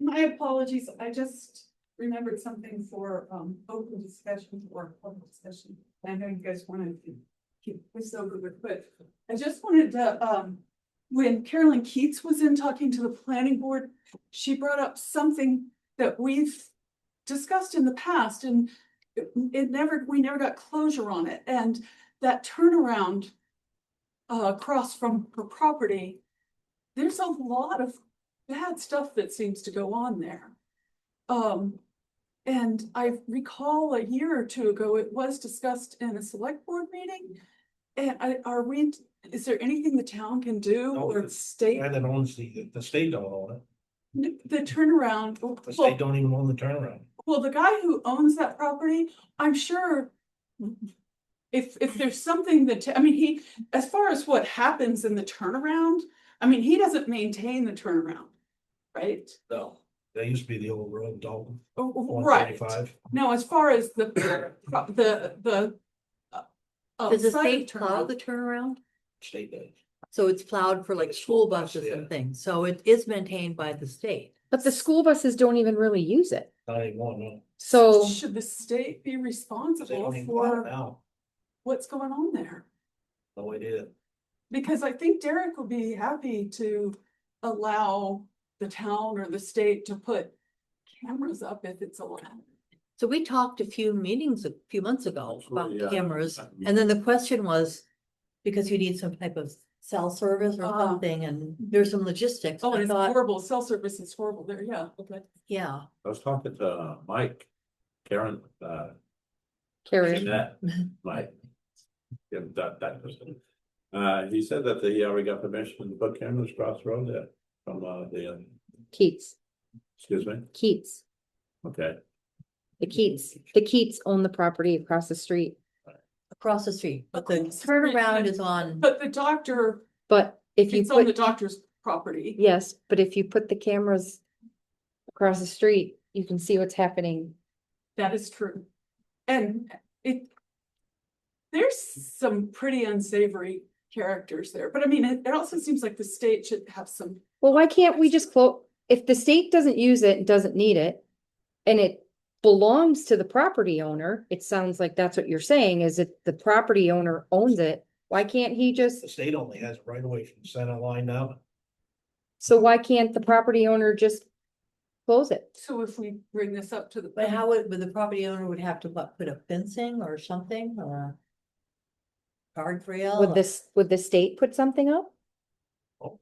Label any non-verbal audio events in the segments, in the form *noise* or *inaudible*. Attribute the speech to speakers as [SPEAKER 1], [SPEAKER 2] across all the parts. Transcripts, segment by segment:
[SPEAKER 1] My apologies, I just remembered something for um open discussion or public discussion. I know you guys wanted to keep this over with, but I just wanted to um. When Carolyn Keats was in talking to the planning board, she brought up something that we've discussed in the past and. It it never, we never got closure on it and that turnaround. Uh, across from her property. There's a lot of bad stuff that seems to go on there. Um, and I recall a year or two ago, it was discussed in a select board meeting. And I, are we, is there anything the town can do
[SPEAKER 2] No,
[SPEAKER 1] or
[SPEAKER 2] the
[SPEAKER 1] state?
[SPEAKER 2] guy that owns the, the state don't own it,
[SPEAKER 1] N- The turnaround,
[SPEAKER 2] the
[SPEAKER 1] well,
[SPEAKER 2] state don't even own the turnaround.
[SPEAKER 1] well, the guy who owns that property, I'm sure. If, if there's something that, I mean, he, as far as what happens in the turnaround, I mean, he doesn't maintain the turnaround. Right?
[SPEAKER 2] No. That used to be the old road, Dalton,
[SPEAKER 1] Oh, oh,
[SPEAKER 2] one
[SPEAKER 1] Right,
[SPEAKER 2] thirty-five.
[SPEAKER 1] now as far as the, the, the. uh, uh,
[SPEAKER 3] Does the
[SPEAKER 1] side of
[SPEAKER 3] state plow
[SPEAKER 1] turnaround-
[SPEAKER 3] the turnaround?
[SPEAKER 2] State does.
[SPEAKER 3] So it's plowed for like
[SPEAKER 2] It's
[SPEAKER 3] school
[SPEAKER 2] plowed,
[SPEAKER 3] buses
[SPEAKER 2] yeah.
[SPEAKER 3] and things, so it is maintained by the state.
[SPEAKER 4] But the school buses don't even really use it.
[SPEAKER 2] Not anymore, no.
[SPEAKER 4] So
[SPEAKER 1] Should the state
[SPEAKER 2] They
[SPEAKER 1] be responsible
[SPEAKER 2] don't even buy it
[SPEAKER 1] for
[SPEAKER 2] now,
[SPEAKER 1] what's going on there?
[SPEAKER 2] the way they did.
[SPEAKER 1] Because I think Derek would be happy to allow the town or the state to put cameras up if it's allowed.
[SPEAKER 3] So we talked a few meetings a few months ago about
[SPEAKER 5] Absolutely, yeah.
[SPEAKER 3] cameras, and then the question was. Because you need some type of cell service or
[SPEAKER 1] Ah.
[SPEAKER 3] something, and there's some logistics,
[SPEAKER 1] Oh, and
[SPEAKER 3] I
[SPEAKER 1] it's
[SPEAKER 3] thought,
[SPEAKER 1] horrible, cell service is horrible there, yeah, okay.
[SPEAKER 3] yeah.
[SPEAKER 5] I was talking to uh, Mike, Karen, uh,
[SPEAKER 4] Carrie,
[SPEAKER 5] Jeanette, Mike. Yeah, that, that person. Uh, he said that he already got permission to put cameras across the road there from, uh, the, uh,
[SPEAKER 4] Keats,
[SPEAKER 5] excuse me,
[SPEAKER 4] Keats,
[SPEAKER 5] okay.
[SPEAKER 4] the Keats, the Keats own the property across the street,
[SPEAKER 3] Across the street, but the
[SPEAKER 1] Across the street,
[SPEAKER 3] turnaround
[SPEAKER 1] and-
[SPEAKER 3] is
[SPEAKER 1] *laughs*
[SPEAKER 3] on,
[SPEAKER 1] But the doctor,
[SPEAKER 4] but if you
[SPEAKER 1] it's on the
[SPEAKER 4] put,
[SPEAKER 1] doctor's property.
[SPEAKER 4] yes, but if you put the cameras across the street, you can see what's happening.
[SPEAKER 1] That is true. And it. There's some pretty unsavory characters there, but I mean, it it also seems like the state should have some,
[SPEAKER 4] Well, why can't we just quote, if the state doesn't use it and doesn't need it, and it belongs to the property owner, it sounds like that's what you're saying, is it the property owner owns it? Why can't he just
[SPEAKER 2] The state only has it right away from center line now.
[SPEAKER 4] So why can't the property owner just close it?
[SPEAKER 1] so if we bring this up to the.
[SPEAKER 3] but how would, would the property owner would have to what, put up fencing or something, or? Guardrail?
[SPEAKER 4] Would
[SPEAKER 3] or-
[SPEAKER 4] this, would the state put something up?
[SPEAKER 2] Oh.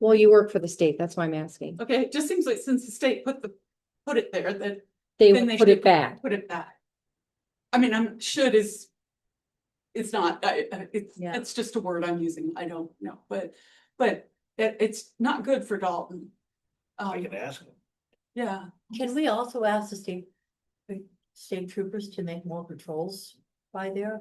[SPEAKER 4] Well, you work for the state, that's why I'm asking.
[SPEAKER 1] Okay, it just seems like since the state put the, put it there, that
[SPEAKER 4] They
[SPEAKER 1] Then
[SPEAKER 4] would put
[SPEAKER 1] should
[SPEAKER 4] it back.
[SPEAKER 1] Put it back. I mean, I'm, should is. It's not, I, I- it's,
[SPEAKER 3] Yeah.
[SPEAKER 1] it's just a word I'm using, I don't know, but, but it, it's not good for Dalton.
[SPEAKER 2] I
[SPEAKER 1] Um,
[SPEAKER 2] can ask them.
[SPEAKER 1] yeah,
[SPEAKER 3] Can we also ask the state, the state troopers to make more patrols by there?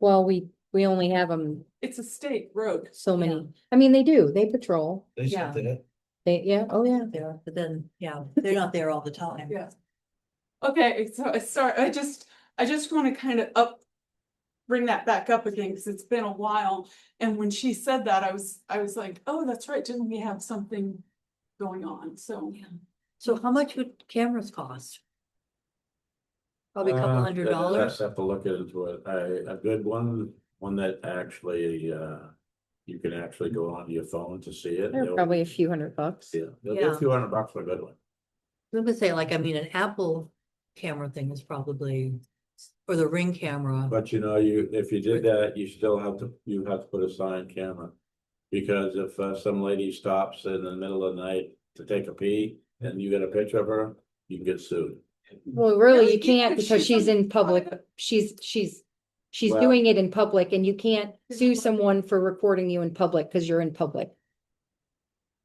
[SPEAKER 4] Well, we, we only have them
[SPEAKER 1] it's a state road.
[SPEAKER 4] so
[SPEAKER 3] Yeah.
[SPEAKER 4] many. I mean, they do, they patrol.
[SPEAKER 2] They
[SPEAKER 3] Yeah.
[SPEAKER 2] said that.
[SPEAKER 4] They, yeah, oh yeah.
[SPEAKER 3] There, but then, yeah, they're not there all the time.
[SPEAKER 1] Yeah. Okay, so I sorry, I just, I just wanna kind of up. Bring that back up again, cause it's been a while, and when she said that, I was, I was like, oh, that's right, didn't we have something going on, so.
[SPEAKER 3] So how much would cameras cost? Probably a
[SPEAKER 5] Uh,
[SPEAKER 3] couple hundred
[SPEAKER 5] that-
[SPEAKER 3] dollars.
[SPEAKER 5] that's- Have to look into it. I, a good one, one that actually, uh, you can actually go onto your phone to see it.
[SPEAKER 4] They're
[SPEAKER 5] They'll-
[SPEAKER 4] probably a few hundred bucks.
[SPEAKER 5] Yeah, they'll give you a
[SPEAKER 3] Yeah.
[SPEAKER 5] few hundred bucks for a good one.
[SPEAKER 3] I'm gonna say like, I mean, an Apple camera thing is probably, or the ring camera.
[SPEAKER 5] But you know, you, if you did that, you still have to, you have to put a sign camera. Because if uh, some lady stops in the middle of the night to take a pee and you get a picture of her, you can get sued.
[SPEAKER 4] Well, really,
[SPEAKER 1] Really?
[SPEAKER 4] you can't
[SPEAKER 1] Because
[SPEAKER 4] because
[SPEAKER 1] she's on
[SPEAKER 4] she's in public,
[SPEAKER 1] private-
[SPEAKER 4] she's, she's, she's
[SPEAKER 5] Well-
[SPEAKER 4] doing it in public and you can't sue someone for recording you in public because you're in public.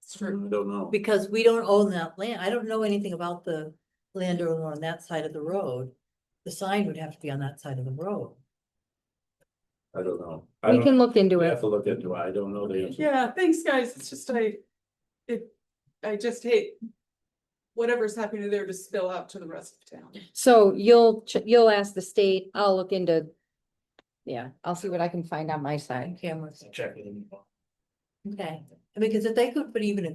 [SPEAKER 1] It's
[SPEAKER 5] I
[SPEAKER 1] true.
[SPEAKER 5] don't know.
[SPEAKER 3] Because we don't own that land. I don't know anything about the landowner on that side of the road. The sign would have to be on that side of the road.
[SPEAKER 5] I don't know. I
[SPEAKER 4] We
[SPEAKER 5] don't-
[SPEAKER 4] can look into
[SPEAKER 5] We
[SPEAKER 4] it.
[SPEAKER 5] have to look into it. I don't know the answer.
[SPEAKER 1] Yeah, thanks, guys. It's just I, it, I just hate whatever's happening there to spill out to the rest of town.
[SPEAKER 4] So you'll, ch- you'll ask the state, I'll look into, yeah, I'll see what I can find on my side.
[SPEAKER 3] Cameras,
[SPEAKER 2] Check with them.
[SPEAKER 3] okay. Because if they could put even a